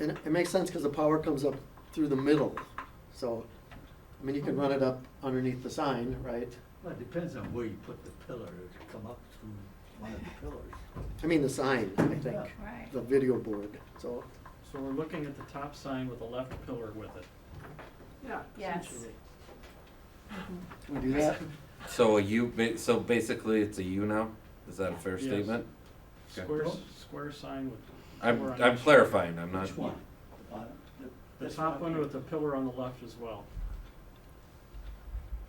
And it makes sense because the power comes up through the middle. So, I mean, you can run it up underneath the sign, right? Well, it depends on where you put the pillar, it could come up through one of the pillars. I mean, the sign, I think, Yeah. Right. the video board, so. So we're looking at the top sign with the left pillar with it. Yeah, Yes. essentially. Can we do that? So a U, ba- so basically it's a U now? Is that a fair Yes. statement? Okay. Square, s- square sign with. I'm, pillar on I'm each- clarifying, I'm not. Which one? The bottom? The- The this top one here? with the pillar on the left as well.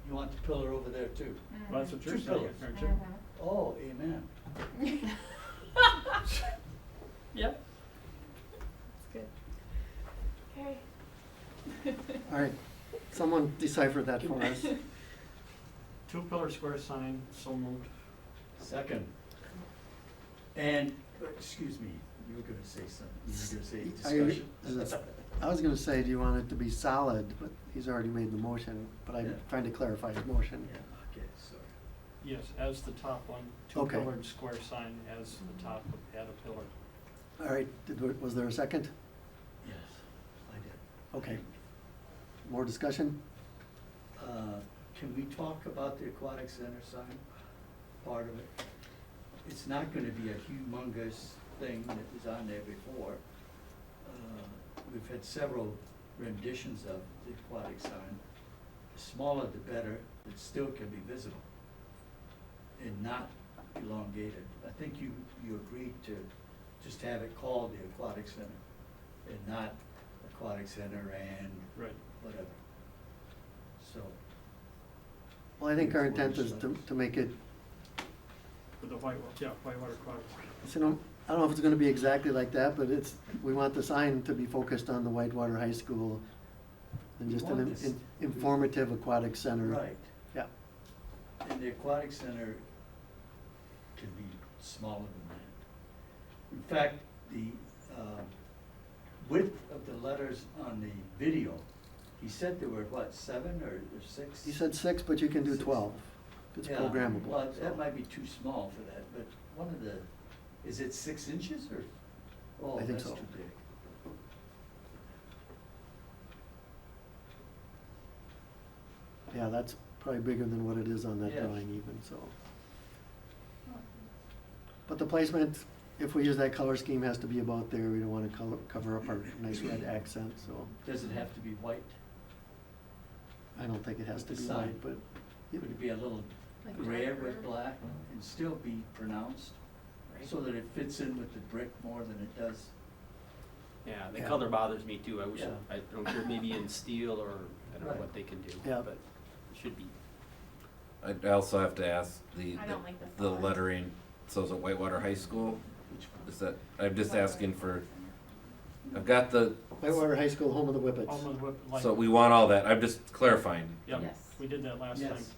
You want the pillar over there too? Mm-hmm. Well, That's what you're Two saying, pillars. aren't you? Oh, amen. Mm-hmm. Yep. Okay. All right, someone decipher that for us. Two pillar square sign, so moved. Second. And, uh, excuse me, you were gonna say something, you Are were you- gonna say is discussion. it- I was gonna say, do you want it to be solid, but he's already made the motion, but Yeah. I'm trying to clarify his Yeah, motion. okay, sorry. Yes, as the top one, two Okay. pillared square sign as the Mm-hmm. top had a pillar. All right, did, we- was there a second? Yes, I did. Okay. More discussion? Uh, Can we talk about the aquatic center sign, part of it? It's not gonna be a humongous thing that was on there before. Uh, We've had several renditions of the aquatic sign. The smaller the better, it still can be visible and not elongated. I think you, you agreed to just have it called the aquatic center and not aquatic center and Right. whatever. So, Well, I think our Yes, we'll intent is to, decide. to make it With the white, wa- yeah, whitewater quadrant. So, no- I don't know if it's gonna be exactly like that, but it's, we want the sign to be focused on the Whitewater High School and We just an want in- this- informative aquatic center. Right, Yeah, and the aquatic center can be smaller than that. In fact, the um, width of the letters on the video, he said there were, what, seven or or six? you said six, but you can do Six. twelve. It's Yeah, programmable. Well, so. that might be too small for that, but one of the, is it six inches or? Oh, I think that's so. too big. Yeah, that's probably bigger than what it is on that Yeah. drawing even, so. But the placement, if we use that color scheme, has to be about there. We don't wanna color, cover up our nice red accent, so Does it have to be white? I don't think it has to The be sign. white, but. Could it be a little Like gray darker? with black and still be pronounced? So that it fits in with the brick more than it does. Yeah, the Yeah. color bothers me too. I wish, Yeah. I don't care, maybe in steel or, I don't Right. know what they can do, Yeah. but it should be. I I also have to ask the, I don't like the the font. lettering, so is it Whitewater High School? Which one? Is that, I'm just asking for, I've got the, Whitewater High School, home of the Whippets. Almost whip, like, so we want all that, I'm just clarifying. yeah, Yes. we did that last time. Yes.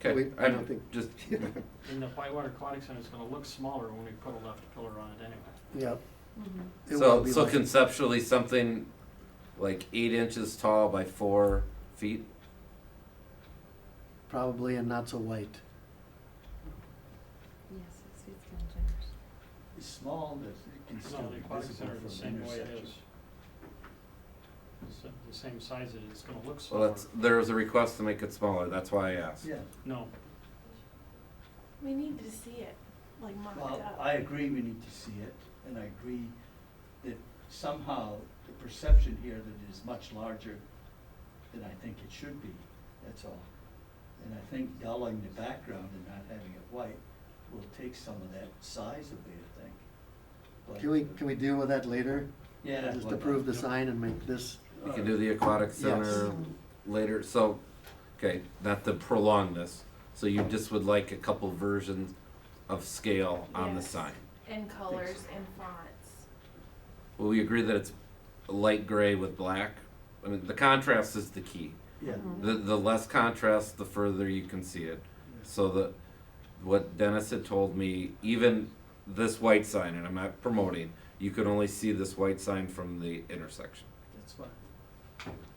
Okay, We- I don't I'm think- just, And the whitewater aquatic center is gonna look smaller when we put a left pillar on it anyway. Yeah. Mhm. It will so, be so like- conceptually, something like eight inches tall by four feet? Probably and not so white. Yes, it's, it's kind of generous. It's small, but it can still No, be the aquatic visible center from the the same way it intersection. is. It's The same size it is, it's gonna look Well, smaller. that's, there was a request to make it smaller, that's why I asked. Yeah, No, We need to see it, like mocked well, up. I agree we need to see it, and I agree that somehow the perception here that it is much larger than I think it should be, that's all. And I think dulling the background and not having it white will take some of that size away, I think. But, Can we, uh, can we deal with that later? Yeah. Just well, Uh, approve the sign and make this, We can do the aquatic center later, so, okay, not to prolong this, so you just would like a couple versions of scale on the Yes. sign? And colors and fonts. Will we agree that it's light gray with black? I mean, the contrast is the key. Yeah. The, the less contrast, the further you can see it. So the, what Dennis had told me, even this white sign, and I'm not promoting, you could only see this white sign from the intersection. That's fine.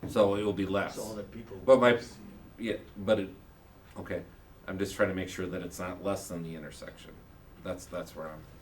So it will be less. That's all that people. But my- want to see. Yeah, but it, okay, I'm just trying to make sure that it's not less than the intersection. That's, that's where I'm,